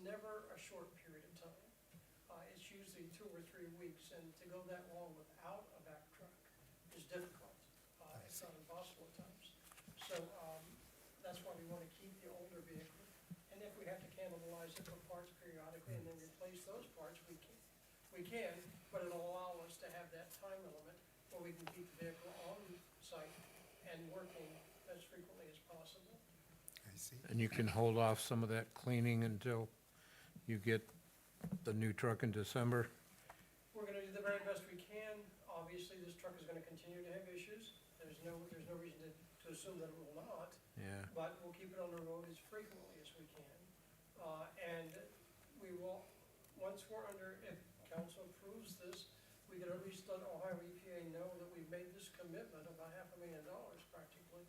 never a short period of time. Uh, It's usually two or three weeks, and to go that long without a back truck is difficult. Uh, It's not impossible at times. So um, that's why we want to keep the older vehicle. And if we have to cannibalize it for parts periodically and then replace those parts, we can, we can, but it'll allow us to have that time element where we can keep the vehicle on site and working as frequently as possible. I see. And you can hold off some of that cleaning until you get the new truck in December? We're gonna do the very best we can. Obviously, this truck is gonna continue to have issues. There's no, there's no reason to, to assume that it will not. Yeah. But we'll keep it on the road as frequently as we can. Uh, and we will, once we're under, if council approves this, we can at least let Ohio EPA know that we've made this commitment of a half a million dollars practically,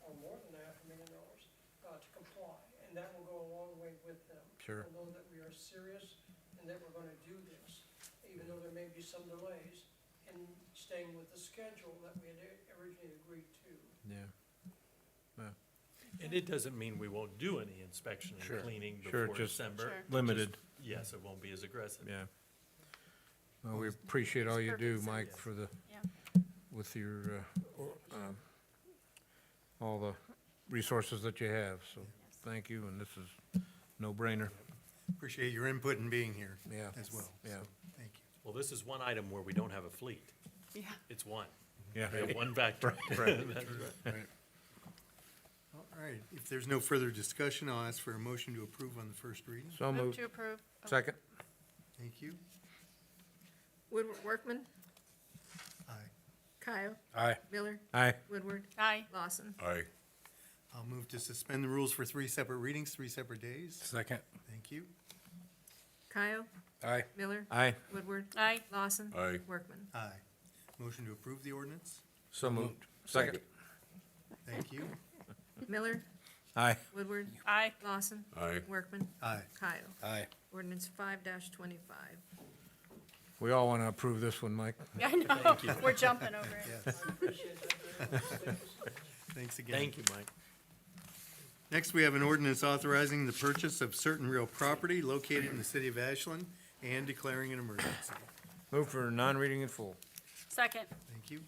or more than a half a million dollars, uh, to comply. And that will go a long way with them. Sure. They'll know that we are serious and that we're gonna do this, even though there may be some delays in staying with the schedule that we had originally agreed to. Yeah. Yeah. And it doesn't mean we won't do any inspection Sure. and cleaning Sure, before just December. Limited, Yes, it won't be as aggressive. yeah. Well, we appreciate all you do, Perfect, so Mike, yes. for the, Yeah, with your, uh, or- um, all the resources that you have, so Yes. thank you, and this is no-brainer. Appreciate your input and being here Yeah. as well. Yeah. So, Thank you. Well, this is one item where we don't have a fleet. yeah. It's one. We Yeah. have one back truck. Right. All right, if there's no further discussion, I'll ask for a motion to approve on the first reading. So Move moved. to approve. Oh, Second? Thank you. Woodward, Workman, Aye. Kyle, Aye. Miller, Aye. Woodward, Aye, Lawson. Aye. I'll move to suspend the rules for three separate readings, three separate days. Second. Thank you. Kyle, Aye. Miller, Aye. Woodward, aye, Lawson. Aye. Workman. Aye. Motion to approve the ordinance. So moved. Second? Thank you. Miller, Aye. Woodward, aye, Lawson. Aye. Workman, Aye. Kyle. Aye. Ordinance five twenty-five. We all want to approve this one, Mike. I know, we're jumping over it. Yes. appreciate that very much. Thanks again. Thank you, Mike. Next, we have an ordinance authorizing the purchase of certain real property located in the city of Ashland and declaring an emergency. Move for non-reading in full. Second, Thank you.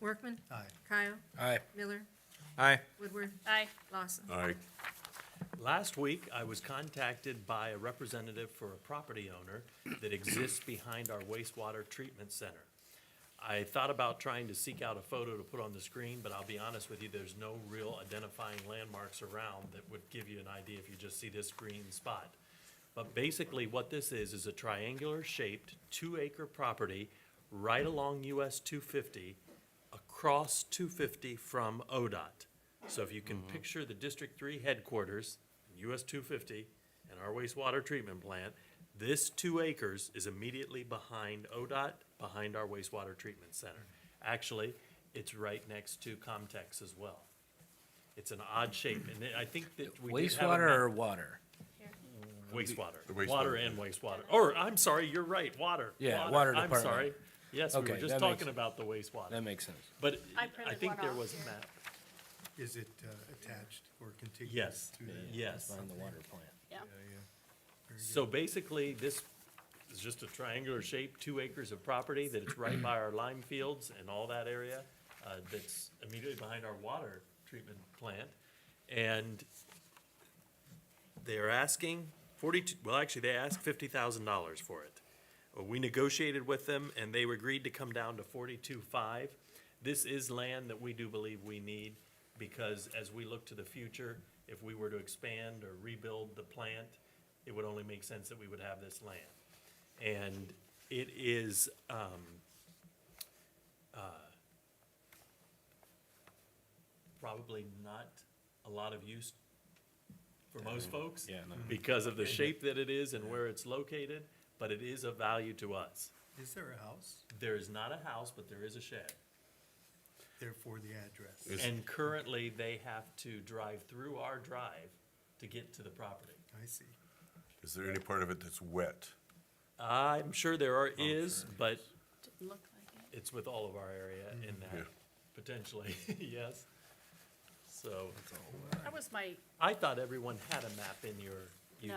Workman, Aye. Kyle, Aye. Miller, Aye. Woodward, aye, Lawson. Aye. Last week, I was contacted by a representative for a property owner that exists behind our wastewater treatment center. I thought about trying to seek out a photo to put on the screen, but I'll be honest with you, there's no real identifying landmarks around that would give you an idea if you just see this green spot. But basically, what this is, is a triangular-shaped, two-acre property right along US 250, across 250 from ODOT. So if you Mm-hmm. can picture the District 3 headquarters, US 250, and our wastewater treatment plant, this two acres is immediately behind ODOT, behind our wastewater treatment center. Actually, it's right next to Comtex as well. It's an odd shape, and I think that we did have a map- Wastewater or water? The Wastewater, wastewater. water and wastewater, or, I'm sorry, you're right, water. Yeah, water I'm department. sorry. Yes, we Okay, were just that makes talking sense. about the That wastewater, makes sense. but I I printed think one there off was a here. map. Is it uh, attached or contiguous Yes, to the? yes. Behind the water plant. yeah, So basically, this is just a triangular shape, two acres of property that it's right by our lime fields and all that area, uh, that's immediately behind our water treatment plant. And they're asking forty-two, well, actually, they asked fifty thousand dollars for it. Uh, We negotiated with them and they agreed to come down to forty-two-five. This is land that we do believe we need because as we look to the future, if we were to expand or rebuild the plant, it would only make sense that we would have this land. And it is, um, uh, probably not a lot of use for most folks Yeah, no. because of the shape that it is and where it's located, but it is of value to us. Is there a house? There is not a house, but there is a shed. Therefore, the address. Is- And currently, they have to drive through our drive to get to the property. I see. Is there any part of it that's wet? I'm sure there are is, but didn't look like it. it's with all of our area in Yeah. that, potentially, yes. So That was my, I thought everyone had a map in your